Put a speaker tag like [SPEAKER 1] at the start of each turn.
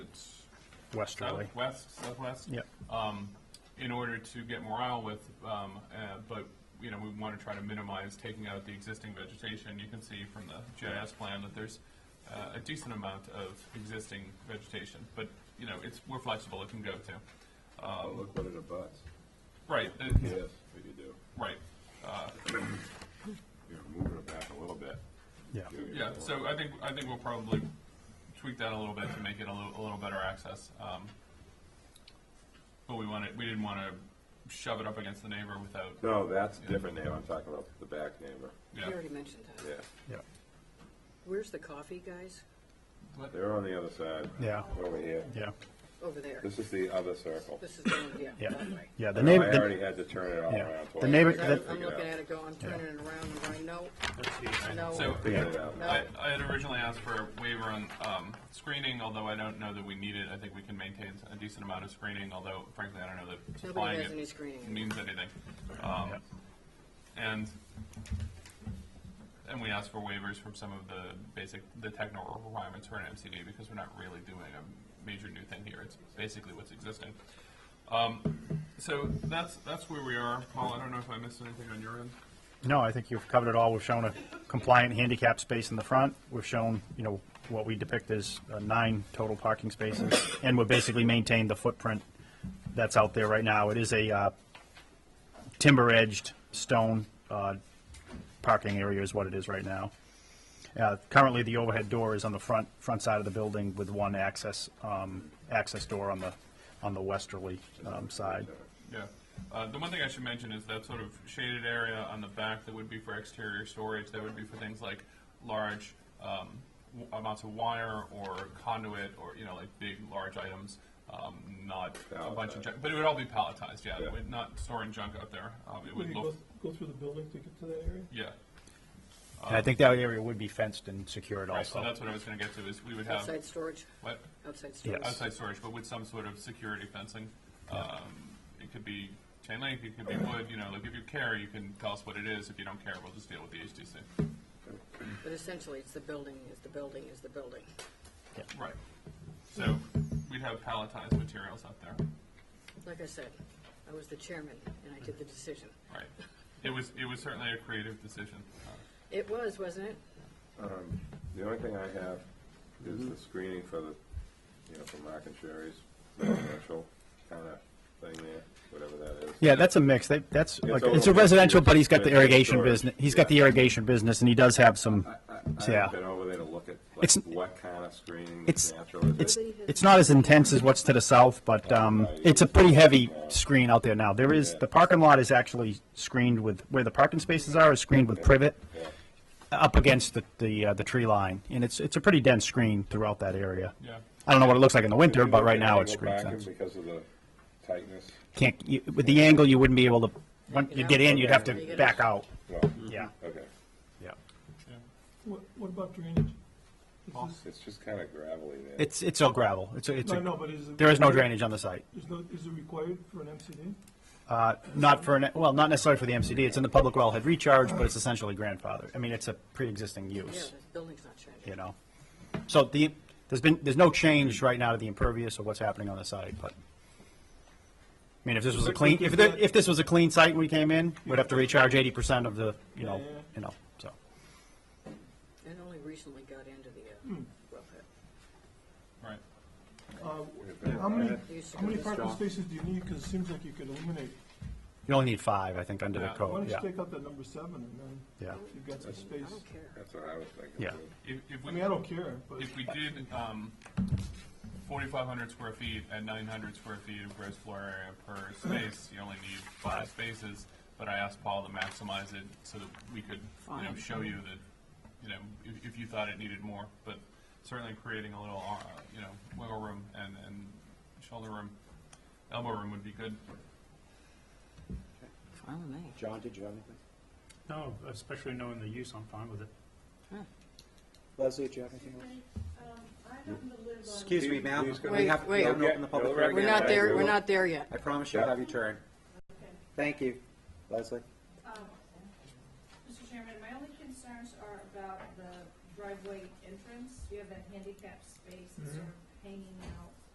[SPEAKER 1] westerly.
[SPEAKER 2] southwest, southwest.
[SPEAKER 1] Yep.
[SPEAKER 2] Um, in order to get more out with, um, uh, but, you know, we want to try to minimize taking out the existing vegetation. You can see from the GIS plan that there's, uh, a decent amount of existing vegetation, but, you know, it's, we're flexible, it can go to.
[SPEAKER 3] Oh,
[SPEAKER 2] Um,
[SPEAKER 3] look what it abuts.
[SPEAKER 2] right, uh,
[SPEAKER 3] Yes, what you do.
[SPEAKER 2] right, uh,
[SPEAKER 3] You're moving it back a little bit.
[SPEAKER 1] Yeah.
[SPEAKER 3] Giving it
[SPEAKER 2] yeah,
[SPEAKER 3] more.
[SPEAKER 2] so I think, I think we'll probably tweak that a little bit to make it a little, a little better access. Um, But we wanted, we didn't want to shove it up against the neighbor without,
[SPEAKER 3] No, that's a different neighbor. I'm talking about the back neighbor.
[SPEAKER 2] yeah.
[SPEAKER 4] You already mentioned that.
[SPEAKER 3] Yeah,
[SPEAKER 1] Yeah.
[SPEAKER 4] Where's the coffee, guys?
[SPEAKER 2] What-
[SPEAKER 3] they're on the other side.
[SPEAKER 1] Yeah.
[SPEAKER 3] Over here.
[SPEAKER 1] Yeah.
[SPEAKER 4] Over there.
[SPEAKER 3] This is the other circle. Oh,
[SPEAKER 4] This is the one, yeah,
[SPEAKER 1] Yeah.
[SPEAKER 4] that way.
[SPEAKER 1] Yeah. The
[SPEAKER 3] I know,
[SPEAKER 1] neighbor.
[SPEAKER 3] I already
[SPEAKER 1] The,
[SPEAKER 3] had to turn it all
[SPEAKER 1] Yeah.
[SPEAKER 3] around.
[SPEAKER 1] The
[SPEAKER 3] twice.
[SPEAKER 1] neighbor-
[SPEAKER 4] Because I'm-
[SPEAKER 1] that-
[SPEAKER 4] I'm
[SPEAKER 3] Figure
[SPEAKER 4] looking
[SPEAKER 3] out.
[SPEAKER 4] at it going, turning it around and going, no, no.
[SPEAKER 2] So,
[SPEAKER 3] Figure it out.
[SPEAKER 4] No.
[SPEAKER 2] I, I had originally asked for a waiver on, um, screening, although I don't know that we need it. I think we can maintain a decent amount of screening, although frankly, I don't know that
[SPEAKER 4] Nobody
[SPEAKER 2] supplying
[SPEAKER 4] has any
[SPEAKER 2] it
[SPEAKER 4] screening.
[SPEAKER 2] means anything. Um, and, and we asked for waivers from some of the basic, the technical requirements for an MCD because we're not really doing a major new thing here. It's basically what's existing. Um, so that's, that's where we are. Paul, I don't know if I missed anything on your end.
[SPEAKER 1] no, I think you've covered it all. We've shown a compliant handicap space in the front. We've shown, you know, what we depict as uh, nine total parking spaces, and we basically maintained the footprint that's out there right now. It is a uh, timber-edged stone uh, parking area is what it is right now. Uh, Currently, the overhead door is on the front, front side of the building with one access, um, access door on the, on the westerly um, side.
[SPEAKER 2] Yeah. Uh, The one thing I should mention is that sort of shaded area on the back that would be for exterior storage, that would be for things like large um, w- amounts of wire or conduit or, you know, like big, large items, um, not a bunch of
[SPEAKER 3] Palletized.
[SPEAKER 2] junk, but it would all be palletized, yeah.
[SPEAKER 3] Yeah.
[SPEAKER 2] We're Not storing junk up there. Um, It
[SPEAKER 5] Would
[SPEAKER 2] would
[SPEAKER 5] you go,
[SPEAKER 2] look,
[SPEAKER 5] go through the building to get to that area?
[SPEAKER 2] yeah.
[SPEAKER 1] And I think that area would be fenced and secured
[SPEAKER 2] Right, so
[SPEAKER 1] also.
[SPEAKER 2] that's what I was gonna get to, is we would have,
[SPEAKER 4] Outside storage,
[SPEAKER 2] what,
[SPEAKER 4] outside storage.
[SPEAKER 1] Yes.
[SPEAKER 2] uh, outside storage, but with some sort of security fencing. Um, It could be chain link, it could be wood, you know, like if you care, you can tell us what it is. If you don't care, we'll just deal with the HDC.
[SPEAKER 4] But essentially, it's the building, is the building, is the building.
[SPEAKER 2] Right. So we'd have palletized materials out there.
[SPEAKER 4] Like I said, I was the chairman and I did the decision.
[SPEAKER 2] Right. It was, it was certainly a creative decision.
[SPEAKER 4] It was, wasn't it?
[SPEAKER 3] The only thing I have is the screening for the, you know, for Mark and Sherry's residential kind of thing there, whatever that is.
[SPEAKER 1] Yeah, that's a mix. That, that's, like,
[SPEAKER 3] all
[SPEAKER 1] it's a
[SPEAKER 3] over.
[SPEAKER 1] residential, but he's got the
[SPEAKER 3] It's- it's
[SPEAKER 1] irrigation
[SPEAKER 3] storage.
[SPEAKER 1] business, he's got the irrigation business, and he does have some, yeah.
[SPEAKER 3] I've been over there to look at like
[SPEAKER 1] It's-
[SPEAKER 3] what kind of screening
[SPEAKER 1] It's,
[SPEAKER 3] is natural. Is it-
[SPEAKER 1] it's, it's not as intense as what's to the south, but, um, it's a pretty heavy screen out there now. There is, the parking lot is actually screened with, where the parking spaces are, is screened with privet
[SPEAKER 3] Yeah.
[SPEAKER 1] up against the, the, uh, the tree line, and it's, it's a pretty dense screen throughout that area.
[SPEAKER 2] Yeah.
[SPEAKER 1] I don't know what it looks like in the winter,
[SPEAKER 3] Did you
[SPEAKER 1] but
[SPEAKER 3] look
[SPEAKER 1] right
[SPEAKER 3] at
[SPEAKER 1] now it's
[SPEAKER 3] angle
[SPEAKER 1] screened.
[SPEAKER 3] parking
[SPEAKER 1] fence.
[SPEAKER 3] Because of the tightness,
[SPEAKER 1] Can't, you- with the angle, you wouldn't be able to, when you get in, you'd have to back out,
[SPEAKER 3] no,
[SPEAKER 1] yeah,
[SPEAKER 3] okay,
[SPEAKER 2] Yeah.
[SPEAKER 1] yeah.
[SPEAKER 5] What, what about drainage? Is this-
[SPEAKER 3] it's just kind of gravelly there.
[SPEAKER 1] It's, it's all gravel. It's, a- it's,
[SPEAKER 5] No,
[SPEAKER 1] a-
[SPEAKER 5] no, but is it?
[SPEAKER 1] there is no drainage on the site.
[SPEAKER 5] Is no, is it required for an MCD?
[SPEAKER 1] Uh, Not for, an- well, not necessarily for the MCD. It's in the public wellhead recharge, but it's essentially grandfathered. I mean, it's a pre-existing
[SPEAKER 4] Yeah,
[SPEAKER 1] use,
[SPEAKER 4] the building's not
[SPEAKER 1] you
[SPEAKER 4] changing.
[SPEAKER 1] know? So the, there's been, there's no change right now to the impervious or what's happening on the site, but, I mean, if this was a clean, if, the- if this was a clean site and we came in, we'd have to recharge eighty percent of the, you know,
[SPEAKER 5] Yeah, yeah.
[SPEAKER 1] you know, so.
[SPEAKER 4] And only recently got into the, uh, wellhead.
[SPEAKER 2] Right.
[SPEAKER 5] Uh,
[SPEAKER 3] Yeah.
[SPEAKER 5] How many,
[SPEAKER 4] Used to
[SPEAKER 5] how many
[SPEAKER 4] be-
[SPEAKER 5] parking spaces do you need? Because it seems like you could eliminate.
[SPEAKER 1] You only need five, I think, under the
[SPEAKER 2] Yeah.
[SPEAKER 5] Why
[SPEAKER 1] code,
[SPEAKER 5] don't you
[SPEAKER 1] Oh, yeah,
[SPEAKER 5] take out that number seven and then
[SPEAKER 1] yeah.
[SPEAKER 5] you've got some
[SPEAKER 4] I
[SPEAKER 5] space.
[SPEAKER 4] don't care.
[SPEAKER 3] That's what I was thinking.
[SPEAKER 1] Yeah.
[SPEAKER 3] too.
[SPEAKER 2] If, if
[SPEAKER 5] I
[SPEAKER 2] we,
[SPEAKER 5] mean, I don't care, but
[SPEAKER 2] if we did, um, forty-five hundred square feet and nine hundred square feet of gross floor area per space, you only need five spaces. But I asked Paul to maximize it so that we could, you know,
[SPEAKER 4] Fine.
[SPEAKER 2] show you that, you know, if, if you thought it needed more. But certainly creating a little, uh, you know, wiggle room and, and shoulder room, elbow room would be good.
[SPEAKER 4] Fine with me.
[SPEAKER 6] John, did you have anything?
[SPEAKER 7] No, especially knowing the use, I'm fine with it.
[SPEAKER 6] Leslie, did you have anything? else? Excuse me, ma'am.
[SPEAKER 3] Please go
[SPEAKER 6] We
[SPEAKER 4] ahead.
[SPEAKER 6] have, we
[SPEAKER 4] Wait,
[SPEAKER 6] haven't
[SPEAKER 3] wait.
[SPEAKER 6] opened the public
[SPEAKER 3] We're
[SPEAKER 6] hearing.
[SPEAKER 4] We're
[SPEAKER 6] yet.
[SPEAKER 4] not there, we're not there yet.
[SPEAKER 6] I promise you'll have your turn. Thank you, Leslie.
[SPEAKER 8] Mr. Um, Chairman, my only concerns are about the driveway entrance. You have that handicap space that's sort of hanging out